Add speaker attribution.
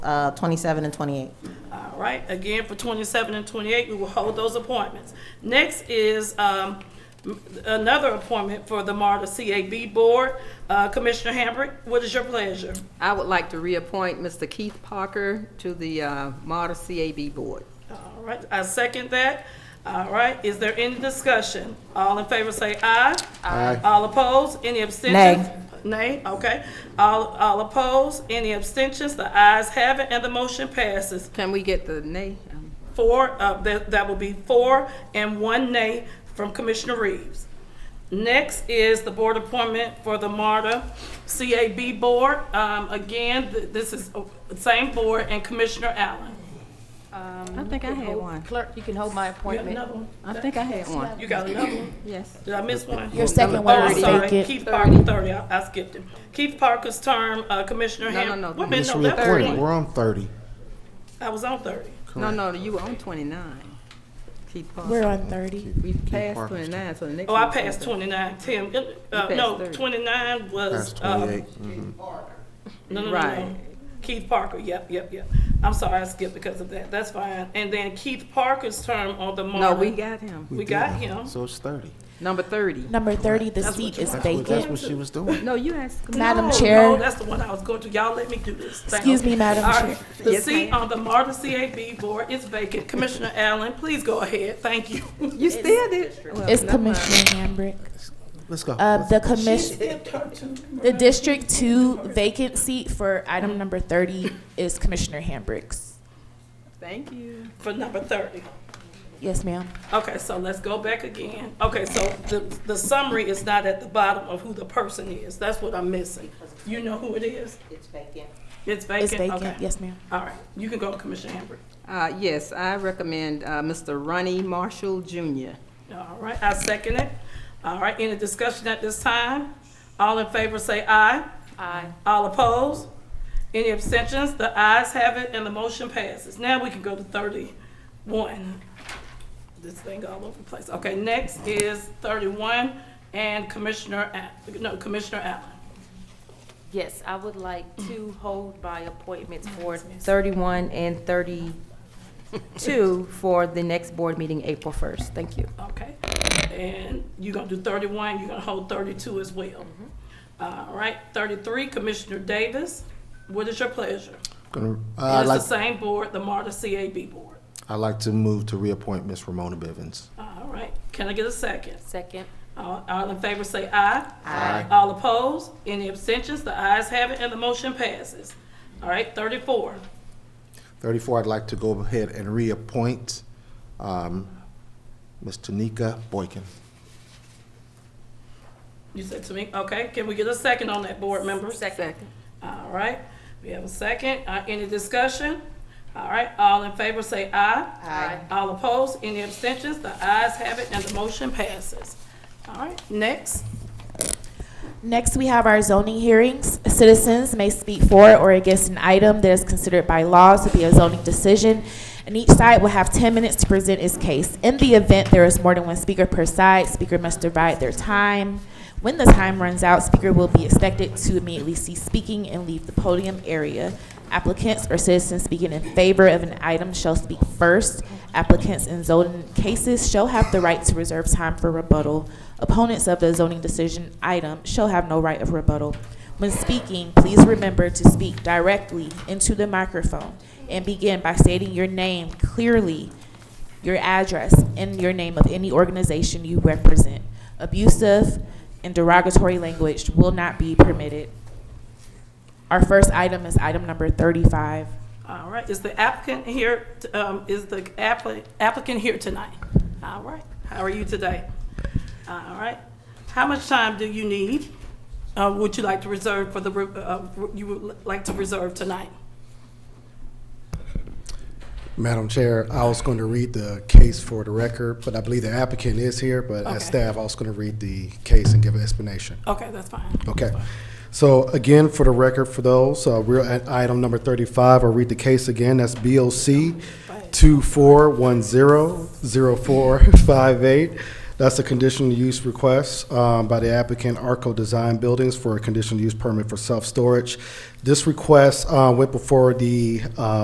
Speaker 1: uh, 27 and 28.
Speaker 2: All right, again, for 27 and 28, we will hold those appointments. Next is um, m- another appointment for the MARTA CAB Board. Uh, Commissioner Hambrick, what is your pleasure?
Speaker 3: I would like to reappoint Mr. Keith Parker to the uh, Marta CAB Board.
Speaker 2: All right, I second that. All right, is there any discussion? All in favor say aye. Aye. All opposed, any abstentions? Nay, okay. All, all opposed, any abstentions? The ayes have it, and the motion passes.
Speaker 3: Can we get the name? Um,
Speaker 2: Four, uh, that, that will be four and one nay from Commissioner Reeves. Next is the board appointment for the MARTA CAB Board. Um, again, th- this is uh, same board and Commissioner Allen.
Speaker 3: I think I had one.
Speaker 4: Clerk, you can hold my
Speaker 2: You have
Speaker 4: appointment.
Speaker 2: another one?
Speaker 3: I think I had one,
Speaker 2: You got another one?
Speaker 3: yes.
Speaker 2: Did I miss one?
Speaker 4: Your second
Speaker 2: Oh,
Speaker 4: one
Speaker 2: I'm
Speaker 4: was
Speaker 2: sorry,
Speaker 4: vacant.
Speaker 2: Keith Parker, thirty, I I skipped him. Keith Parker's term, uh, Commissioner
Speaker 3: No, no,
Speaker 2: Ham.
Speaker 3: no.
Speaker 2: Wait a minute,
Speaker 3: Just
Speaker 2: no, that was
Speaker 3: reappointed.
Speaker 2: 20.
Speaker 5: We're on thirty.
Speaker 2: I was on thirty.
Speaker 3: No, no, you were on 29. Keith
Speaker 4: We're
Speaker 3: Parker.
Speaker 4: on thirty.
Speaker 3: We passed
Speaker 5: Parker's
Speaker 3: 29, so the next.
Speaker 2: Oh, I
Speaker 3: one's
Speaker 2: passed 29, 10, uh,
Speaker 3: You
Speaker 2: no,
Speaker 3: passed 30.
Speaker 2: 29 was,
Speaker 5: That's
Speaker 2: uh,
Speaker 5: twenty-eight.
Speaker 2: No, no, no,
Speaker 3: Right.
Speaker 2: no. Keith Parker, yep, yep, yep. I'm sorry, I skipped because of that. That's fine. And then Keith Parker's term on the
Speaker 3: No,
Speaker 2: MARTA.
Speaker 3: we got him,
Speaker 2: We got him.
Speaker 5: Mm-hmm. So it's thirty.
Speaker 3: number 30.
Speaker 4: Number thirty, the seat is
Speaker 5: That's what, that's
Speaker 4: vacant.
Speaker 5: what she was doing.
Speaker 3: No, you asked. Commissioner-
Speaker 4: Madam
Speaker 2: No, No,
Speaker 4: Chair,
Speaker 2: that's the one I was going to. Y'all let me do this. Thank
Speaker 4: excuse
Speaker 2: you.
Speaker 4: me, Madam
Speaker 2: All
Speaker 4: Chair.
Speaker 2: right, the
Speaker 3: Yes,
Speaker 2: seat
Speaker 3: ma'am.
Speaker 2: on the MARTA CAB board is vacant. Commissioner Allen, please go ahead. Thank you.
Speaker 3: You still did. well,
Speaker 4: It's
Speaker 3: never mind.
Speaker 4: Commissioner Hambrick.
Speaker 5: Let's go.
Speaker 4: Uh, the commission, the District Two vacant seat for item number thirty is Commissioner Hambrick's.
Speaker 3: Thank you.
Speaker 2: For number 30.
Speaker 4: Yes, ma'am.
Speaker 2: Okay, so let's go back again. Okay, so the, the summary is not at the bottom of who the person is. That's what I'm missing. You know who it is? It's vacant.
Speaker 4: It's
Speaker 2: It's vacant?
Speaker 4: vacant,
Speaker 2: Okay.
Speaker 4: yes, ma'am.
Speaker 2: All right, you can go, Commissioner Hambrick.
Speaker 3: Uh, Yes, I recommend uh, Mr. Ronnie Marshall Jr.
Speaker 2: All right, I second it. All right, any discussion at this time? All in favor say aye. Aye. All opposed? Any abstentions? The ayes have it and the motion passes. Now we can go to thirty-one. This thing all over the place. Okay, next is thirty-one and Commissioner, Al- no, Commissioner Allen.
Speaker 6: Yes, I would like to hold my appointments for 31 and 32 for the next board meeting, April 1st. Thank you.
Speaker 2: Okay, and you're gonna do thirty-one, you're gonna hold thirty-two as well. All right, thirty-three, Commissioner Davis, what is your pleasure?
Speaker 5: Gonna- uh,
Speaker 2: It's
Speaker 5: I'd
Speaker 2: the
Speaker 5: like,
Speaker 2: same board, the MARTA CAB board.
Speaker 5: I'd like to move to reappoint Miss Ramona Bivens.
Speaker 2: All right, can I get a second?
Speaker 6: Second.
Speaker 2: All all in favor say aye. Aye. All opposed, any abstentions, the ayes have it, and the motion passes. All right, thirty-four,
Speaker 5: Thirty-four, I'd like to go ahead and reappoint, um, Ms. Tanika Boykin.
Speaker 2: you said to me, okay, can we get a second on that, board members?
Speaker 3: Second.
Speaker 2: All right, we have a second. Uh, Any discussion? All right, all in favor say aye. Aye. All opposed, any abstentions? The ayes have it and the motion passes. All right, next.
Speaker 4: Next, we have our zoning hearings. Citizens may speak for or against an item that is considered by law to be a zoning decision, and each side will have 10 minutes to present its case. In the event there is more than one speaker per side, speaker must divide their time. When the time runs out, speaker will be expected to immediately cease speaking and leave the podium area. Applicants or citizens speaking in favor of an item shall speak first. Applicants in zoning cases shall have the right to reserve time for rebuttal. Opponents of the zoning decision item shall have no right of rebuttal. When speaking, please remember to speak directly into the microphone and begin by stating your name clearly, your address, and your name of any organization you represent. Abusive and derogatory language will not be permitted. Our first item is item number 35.
Speaker 2: All right, is the applicant here, um, is the appli- applicant here tonight? All right, how are you today? All right, how much time do you need? Uh, Would you like to reserve for the, re- uh, you would like to reserve tonight?
Speaker 7: Madam Chair, I was going to read the case for the record, but I believe the applicant is here, but
Speaker 2: Okay.
Speaker 7: as staff, I was going to read the case and give an explanation.
Speaker 2: Okay, that's fine.
Speaker 7: Okay. So again, for the record, for those, uh, we're at item number 35. I'll read the case again. That's BOC 24100458. That's a conditional use request um, by the applicant Arco Design Buildings for a conditional use permit for self-storage. This request uh, went before the uh,